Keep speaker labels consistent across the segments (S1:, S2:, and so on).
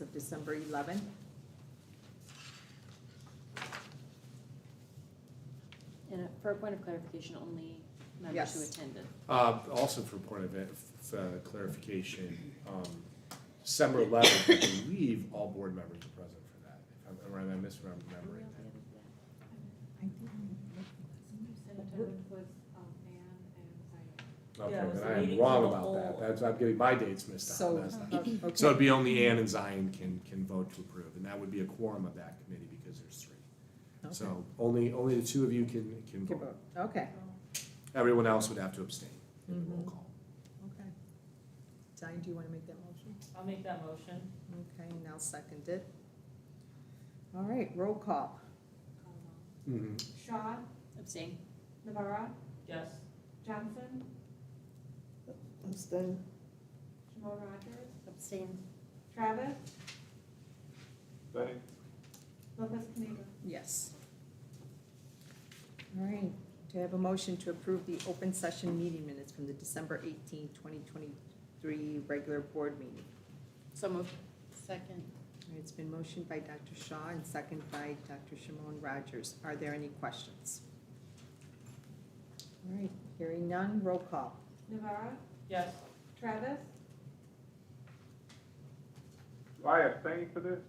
S1: of December 11.
S2: And uh, for a point of clarification, only members who
S1: Yes.
S2: attended.
S3: Uh, also for point of uh, clarification, um, December eleventh, I believe all board members are present for that. If I'm, or am I misremembering that?
S4: was, um, Ann and Diane.
S3: Okay,
S5: Yeah, it was
S3: then
S5: the
S3: I am
S5: meeting
S3: wrong
S5: for the
S3: about that.
S5: whole-
S3: That's, I'm getting my dates mixed up.
S1: So,
S3: That's not-
S1: uh,
S3: So
S1: okay,
S3: it'd be only Ann and Zion can, can vote to approve, and that would be a quorum of that committee because there's three.
S1: okay.
S3: So only, only the two of you can, can
S1: Give
S3: vote.
S1: up. Okay,
S3: Everyone else would have to abstain
S5: Mm-hmm.
S3: in the roll call.
S1: okay. Diane, do you want to make that motion?
S5: I'll make that motion.
S1: Okay, now seconded. All right, roll call.
S4: Um,
S3: Mhm.
S4: Shaw,
S2: Abstain.
S4: Navara,
S5: Yes.
S4: Johnson,
S1: Abstain.
S4: Jamal Rogers,
S2: Abstain.
S4: Travis. Lopez Caniva.
S1: Yes. All right, do I have a motion to approve the open session meeting minutes from the December 18, 2023 regular board meeting?
S2: So moved. Second.
S1: All right, It's been motioned by Dr. Shaw and second by Dr. Shimon Rogers. Are there any questions? All right, hearing none, roll call.
S4: Navara,
S5: Yes.
S4: Travis,
S6: Do I abstain for this?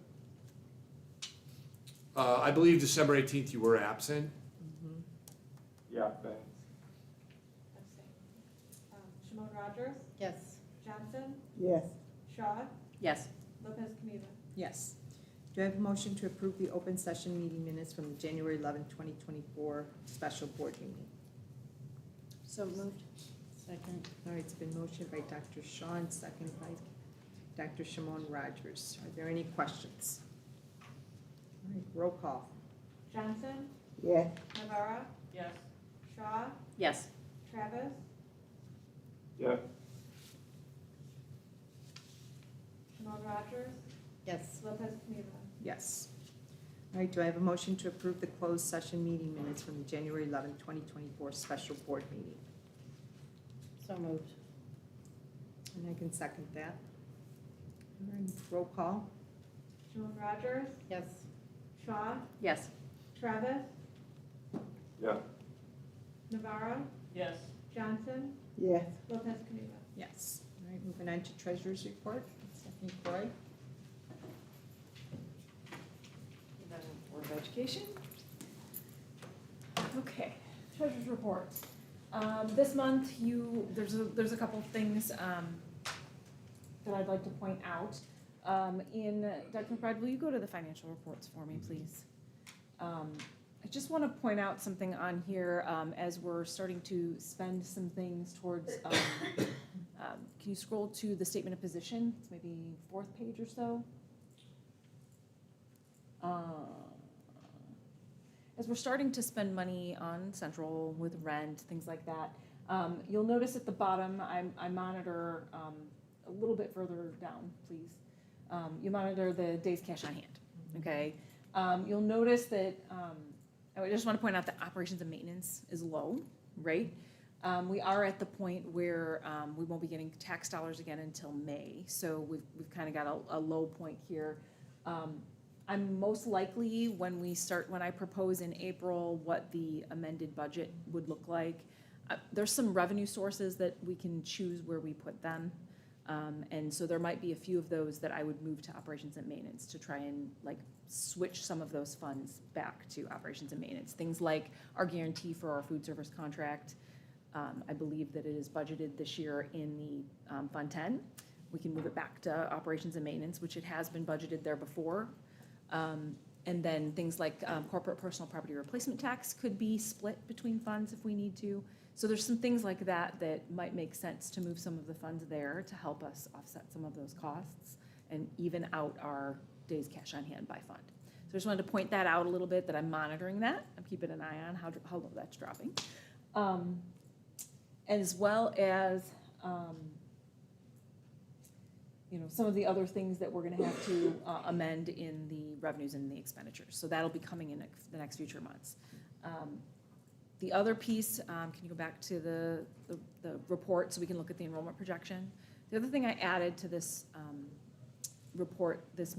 S3: Uh, I believe December eighteenth you were absent.
S6: Yeah, abstain.
S4: abstain. Um, Jamal Rogers,
S2: Yes.
S4: Johnson,
S1: Yes.
S4: Shaw,
S2: Yes.
S4: Lopez Caniva.
S1: Yes. Do I have a motion to approve the open session meeting minutes from the January 11, 2024 special board meeting?
S2: So moved. Second.
S1: All right, it's been motioned by Dr. Shaw and second by Dr. Shimon Rogers. Are there any questions? All right, roll call.
S4: Johnson,
S1: Yes.
S4: Navara,
S5: Yes.
S4: Shaw,
S2: Yes.
S4: Travis,
S6: Yes,
S4: Jamal Rogers,
S2: Yes.
S4: Lopez Caniva.
S1: Yes. All right, do I have a motion to approve the closed session meeting minutes from the January 11, 2024 special board meeting?
S2: So moved.
S1: And I can second that. All right, Roll call?
S4: Jamal Rogers,
S2: Yes.
S4: Shaw,
S2: Yes.
S4: Travis,
S6: yes,
S4: Navara,
S5: Yes.
S4: Johnson,
S1: Yes.
S4: Lopez Caniva.
S1: Yes. All right, moving on to treasurer's report. Stephanie Croy.
S7: Board of Education. Okay, treasurer's report. Um, this month, you, there's a, there's a couple of things, um, that I'd like to point out. Um, in, Dr. McBride, will you go to the financial reports for me, please? Um, I just wanna point out something on here, um, as we're starting to spend some things towards, um, um, can you scroll to the statement of position, it's maybe fourth page or so? Um, as we're starting to spend money on central with rent, things like that, um, you'll notice at the bottom, I, I monitor, um, a little bit further down, please. Um, you monitor the day's cash on hand, okay? Um, you'll notice that, um, I just wanna point out that operations and maintenance is low, right? Um, we are at the point where, um, we won't be getting tax dollars again until May, so we've, we've kinda got a, a low point here. Um, I'm most likely, when we start, when I propose in April what the amended budget would look like, uh, there's some revenue sources that we can choose where we put them. Um, and so there might be a few of those that I would move to operations and maintenance to try and like switch some of those funds back to operations and maintenance. Things like our guarantee for our food service contract. Um, I believe that it is budgeted this year in the, um, Fund Ten. We can move it back to operations and maintenance, which it has been budgeted there before. Um, And then things like um, corporate personal property replacement tax could be split between funds if we need to. So there's some things like that that might make sense to move some of the funds there to help us offset some of those costs and even out our days cash on hand by fund. So I just wanted to point that out a little bit, that I'm monitoring that. I'm keeping an eye on how, how low that's dropping. Um, As well as, um, you know, some of the other things that we're gonna have to uh, amend in the revenues and the expenditures. So that'll be coming in next- the next future months. Um, The other piece, um, can you go back to the, the- the report so we can look at the enrollment projection? The other thing I added to this um, report this